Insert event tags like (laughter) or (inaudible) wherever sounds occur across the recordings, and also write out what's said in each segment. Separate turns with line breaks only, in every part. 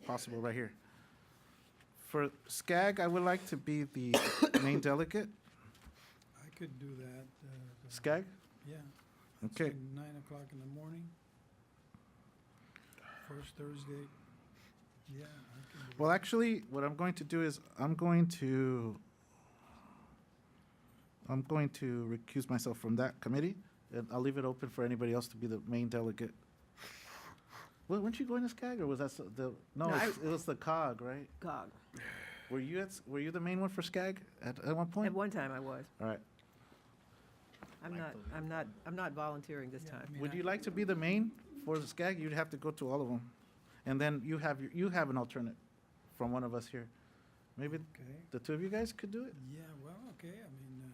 possible right here. For SCAG, I would like to be the (coughs) main delegate.
I could do that. uh,
SCAG?
Yeah. it's
Okay,
like Nine o'clock in the morning. First Thursday. Yeah, I can do
well,
that.
actually, what I'm going to do is, I'm going to, I'm going to recuse myself from that committee, and I'll leave it open for anybody else to be the main delegate. Well, weren't you going to SCAG, or was that s- the, no,
No, I-
it's- it was the COG, right?
God,
Were you at, s- were you the main one for SCAG at, at one
at
point?
one time I was.
All right.
I'm not, I'm not, I'm not volunteering this
Yeah, I
time.
mean,
Would
I-
you like to be the main for the SCAG? You'd have to go to all of them. And then you have, your- you have an alternate from one of us here. Maybe
Okay,
the two of you guys could do it?
yeah, well, okay, I mean, uh,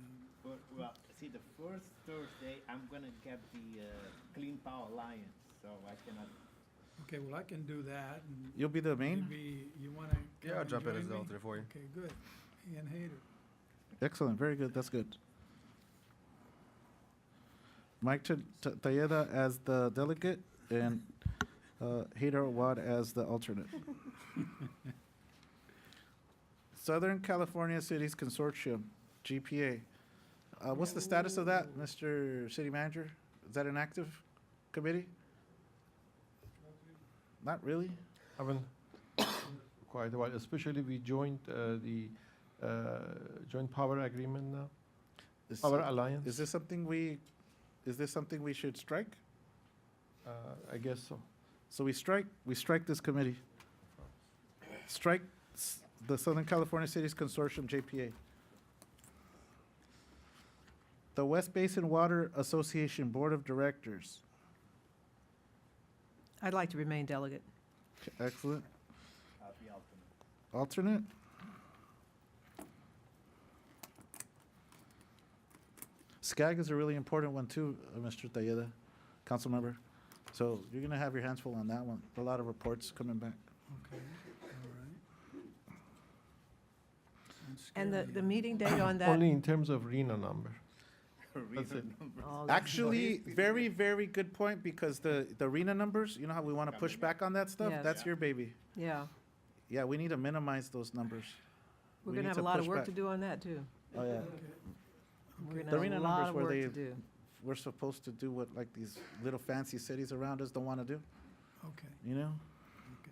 Well, well, see, the first Thursday, I'm gonna get the uh, Clean Power Alliance, so I cannot.
uh, okay, well, I can do that. and
You'll be the main?
Maybe you wanna.
Yeah, I'll
come
jump in
and
as
join
an
me?
alternate for you.
Okay, good. Ian Hader.
Excellent, very good, that's good. Mike Ta- Ta- Tayeda as the delegate and uh, Hader Awad as the alternate. (laughs) Southern California Cities Consortium, GPA. Uh, What's the status of that, Mr. City Manager? Is that an active committee? Not really?
haven't quite a while, especially we joined uh, the uh, joint power agreement now,
Is-
power alliance.
Is this something we, is this something we should strike?
Uh, I guess so.
So we strike, we strike this committee. Strike s- the Southern California Cities Consortium, JPA. The West Basin Water Association Board of Directors.
I'd like to remain delegate.
Okay, Excellent.
I'll be alternate.
Alternate? SCAG is a really important one too, uh, Mr. Tayeda, council member. So you're gonna have your hands full on that one. A lot of reports coming back.
Okay, all right. Don't scare
And the,
me.
the meeting date on that?
Only in terms of RENA number.
(laughs)
Reason
it.
numbers.
Oh, that's-
Actually, very, very good point, because the, the arena numbers, you know how we want to push back on that stuff?
Yes.
That's your baby.
Yeah,
Yeah, we need to minimize those numbers.
we're
We
going
need
to have a lot of
push
work
back.
to do on that, too.
Oh, yeah.
We're going
The
to
arena numbers
have a lot of
where
work
they-
to do.
We're supposed to do what like these little fancy cities around us don't want to do,
Okay,
you know?
okay,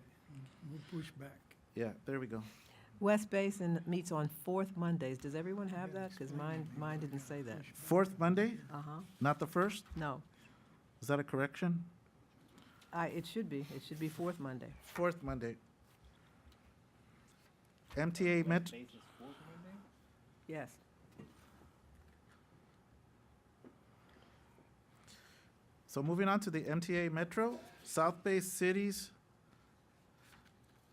we'll push back.
Yeah, there we go.
West Basin meets on fourth Mondays. Does everyone have that? Because
explain
mine,
that.
mine didn't say that.
Fourth Monday,
Uh-huh,
not the first?
no.
Is that a correction?
I, it should be, it should be fourth Monday.
Fourth Monday. MTA Met,
Basis for Monday?
Yes.
so moving on to the MTA Metro, South Bay Cities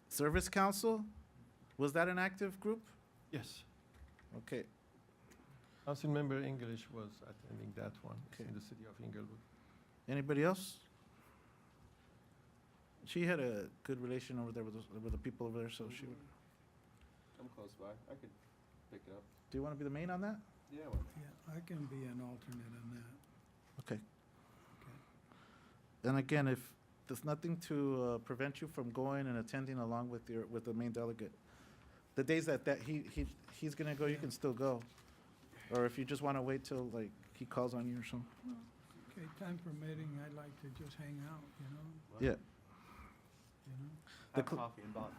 Service Council. Was that an active group?
Yes.
Okay.
Council member English was attending that one It's
Okay.
in the city of Inglewood.
Anybody else? She had a good relation over there with, those- with the people over there, so she, would-
I'm close by. I could pick it up.
do you want to be the main on that?
Yeah,
Yeah, I can be an alternate on that.
Okay.
Okay.
And again, if, there's nothing to uh, prevent you from going and attending along with your, with the main delegate. The days that, that he, he, he's gonna go, you can still go. Or if you just want to wait till, like, he calls on you or something.
Okay, time permitting, I'd like to just hang out, you know,
Yeah,
you know?
The
Have
cl-
coffee and bond.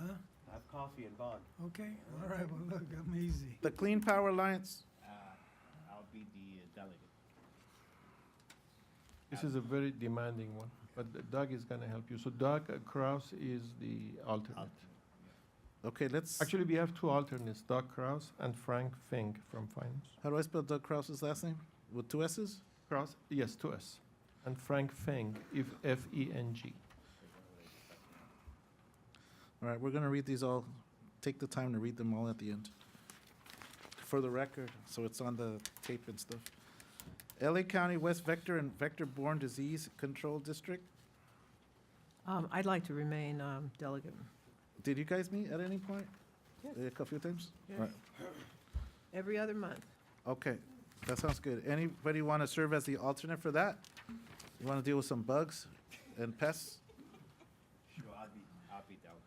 Huh?
Have coffee and bond.
Okay, all right, well, look, I'm easy.
the Clean Power Alliance,
Uh, I'll be the uh,
(laughs)
delegate.
This is a very demanding one, but Doug is going to help you. So Doug uh, Kraus is the alternate.
okay, let's,
Actually, we have two alternates, Doug Kraus and Frank Fink from finance.
how do I spell Doug Krause's last name? With two S's?
Kraus, yes, to us. And Frank Feng, if E F-E-N-G.
All right, we're going to read these all, take the time to read them all at the end. For the record, so it's on the tape and stuff. LA County West Vector and Vector Borne Disease Control District.
Um, I'd like to remain um, delegate.
Did you guys meet at any point?
Yes.
A couple of times?
Yes.
Right.
Every other month.
Okay, that sounds good. Anybody want to serve as the alternate for that? You want to deal with some bugs and pests?
Sure, I'll be, I'll be out.